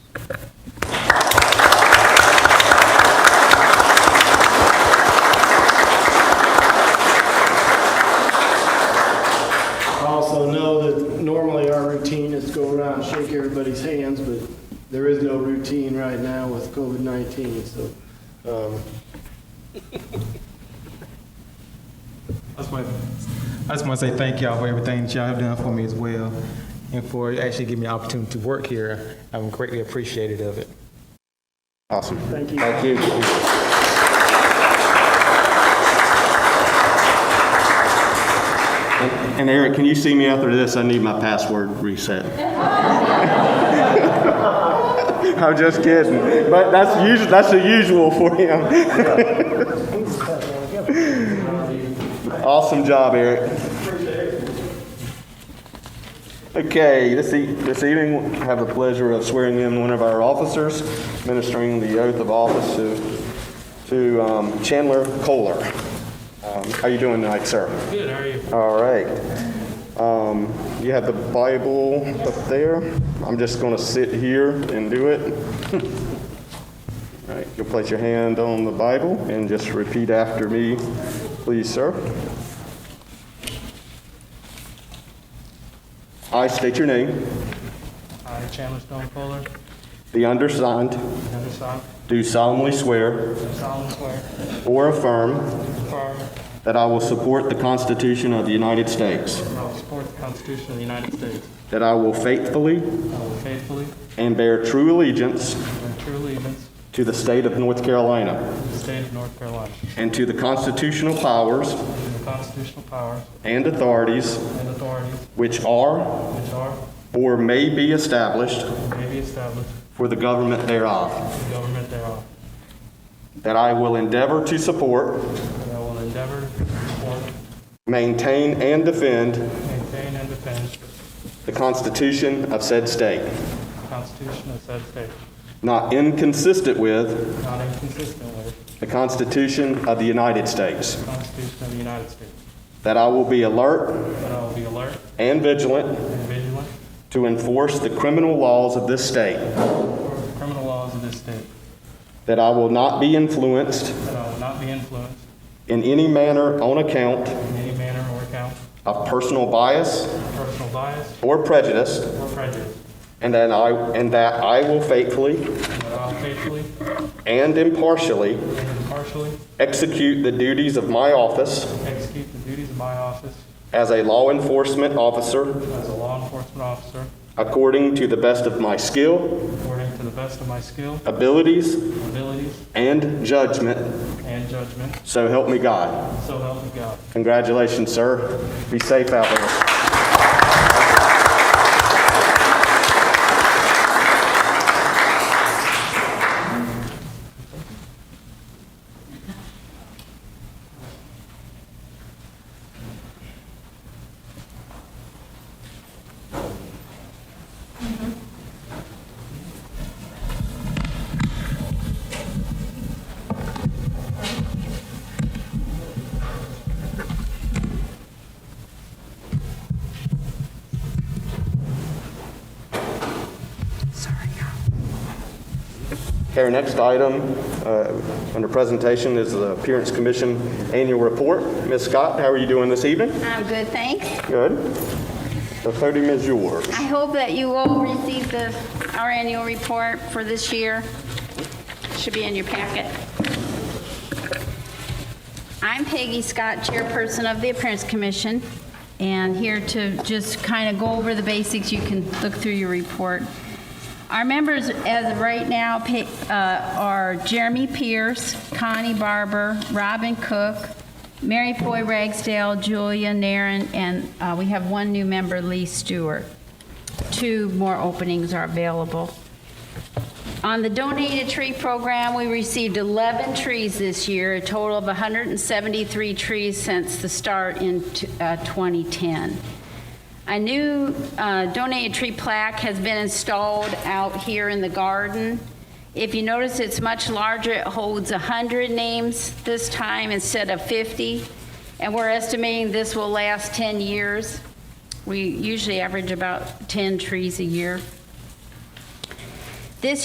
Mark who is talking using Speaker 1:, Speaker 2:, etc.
Speaker 1: there is no routine right now with COVID-19, so, um,
Speaker 2: I just want, I just want to say thank y'all for everything that y'all have done for me as well, and for actually giving me the opportunity to work here. I'm greatly appreciative of it.
Speaker 3: Awesome.
Speaker 1: Thank you.
Speaker 3: Thank you. And Eric, can you see me after this? I need my password reset. I'm just kidding, but that's usual, that's the usual for him. Awesome job, Eric. Okay, this e- this evening, I have the pleasure of swearing in one of our officers, ministering the oath of office to to um, Chandler Kohler. Um, How you doing tonight, sir? Good, how are you? All right. Um, You have the Bible up there. I'm just going to sit here and do it. All right, you'll place your hand on the Bible and just repeat after me, please, sir. I state your name.
Speaker 4: I, Chandler Stone Fuller,
Speaker 3: The undersigned
Speaker 4: undersigned,
Speaker 3: do solemnly swear
Speaker 4: do solemnly swear,
Speaker 3: or affirm
Speaker 4: affirm
Speaker 3: that I will support the Constitution of the United States,
Speaker 4: that I will support the Constitution of the United States.
Speaker 3: that I will faithfully
Speaker 4: I will faithfully
Speaker 3: and bear true allegiance
Speaker 4: and true allegiance
Speaker 3: to the state of North Carolina
Speaker 4: to the state of North Carolina
Speaker 3: and to the constitutional powers
Speaker 4: and the constitutional powers
Speaker 3: and authorities
Speaker 4: and authorities
Speaker 3: which are
Speaker 4: which are
Speaker 3: or may be established
Speaker 4: and may be established
Speaker 3: for the government thereof,
Speaker 4: for the government thereof.
Speaker 3: that I will endeavor to support,
Speaker 4: And I will endeavor to support,
Speaker 3: maintain, and defend
Speaker 4: maintain, and defend
Speaker 3: the Constitution of said state,
Speaker 4: the Constitution of said state,
Speaker 3: not inconsistent with
Speaker 4: not inconsistent with
Speaker 3: The Constitution of the United States.
Speaker 4: the Constitution of the United States.
Speaker 3: That I will be alert
Speaker 4: That I will be alert
Speaker 3: and vigilant
Speaker 4: and vigilant
Speaker 3: to enforce the criminal laws of this state.
Speaker 4: towards the criminal laws of this state.
Speaker 3: That I will not be influenced
Speaker 4: That I will not be influenced
Speaker 3: in any manner on account
Speaker 4: in any manner or account
Speaker 3: of personal bias
Speaker 4: of personal bias
Speaker 3: or prejudice.
Speaker 4: or prejudice,
Speaker 3: And that I, and that I will faithfully
Speaker 4: and that I will faithfully
Speaker 3: and impartially
Speaker 4: and impartially
Speaker 3: execute the duties of my office
Speaker 4: execute the duties of my office
Speaker 3: as a law enforcement officer
Speaker 4: as a law enforcement officer
Speaker 3: according to the best of my skill,
Speaker 4: according to the best of my skill,
Speaker 3: abilities,
Speaker 4: abilities,
Speaker 3: and judgment.
Speaker 4: and judgment,
Speaker 3: So help me God.
Speaker 4: so help me God.
Speaker 3: Congratulations, sir. Be safe out there. Okay, our next item uh, under presentation is the Appearance Commission Annual Report. Ms. Scott, how are you doing this evening?
Speaker 5: I'm good, thanks.
Speaker 3: Good. The podium is yours.
Speaker 5: I hope that you all received the, our annual report for this year. Should be in your packet. I'm Peggy Scott, Chairperson of the Appearance Commission, and here to just kind of go over the basics. You can look through your report. Our members as of right now pa- uh, are Jeremy Pierce, Connie Barber, Robin Cook, Mary Foy Ragsdale, Julia Naren, and uh, we have one new member, Lee Stewart. Two more openings are available. On the donated tree program, we received 11 trees this year, a total of 173 trees since the start in t- uh, 2010. A new uh, donated tree plaque has been installed out here in the garden. If you notice, it's much larger. It holds 100 names this time instead of 50, and we're estimating this will last 10 years. We usually average about 10 trees a year.